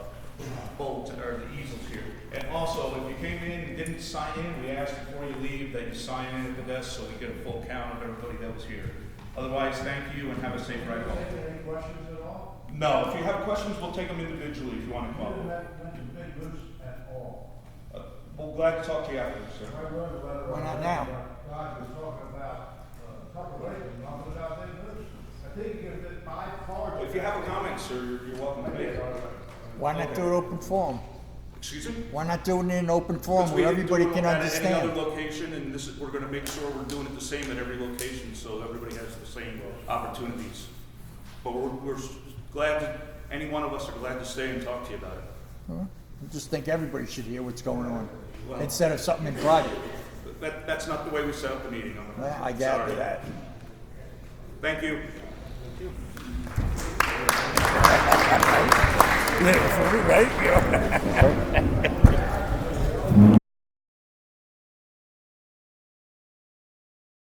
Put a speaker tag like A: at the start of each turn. A: boats or the easels here. And also, if you came in and didn't sign in, we asked before you leave that you sign in at the desk so we get a full count of everybody that was here. Otherwise, thank you and have a safe ride home.
B: Any questions at all?
A: No, if you have questions, we'll take them individually if you want to
B: You
A: call
B: didn't
A: them.
B: have mention big moose at all.
A: Uh, Well, glad to talk to you afterwards, sir.
B: I wrote a letter.
C: Why not now?
B: Guys was talking about, uh, couple of ways, nothing about big moose. I think if it by far.
A: If you have a comment, sir, you're- you're welcome to make it.
C: Why not do it open forum?
A: Excuse me?
C: Why not do it in an open forum
A: Because we
C: where
A: didn't do
C: everybody
A: it
C: can
A: At any other
C: understand?
A: location, and this is, we're gonna make sure we're doing it the same at every location, so everybody has the same uh, opportunities. But we're, we're s- glad, that- any one of us are glad to stay and talk to you about it.
C: I Just think everybody should hear what's going on,
A: Well-
C: instead of something in private.
A: But That, that's not the way we set up the meeting, I'm
C: Well,
A: sorry.
C: I gather that.
A: Thank you.
C: Right,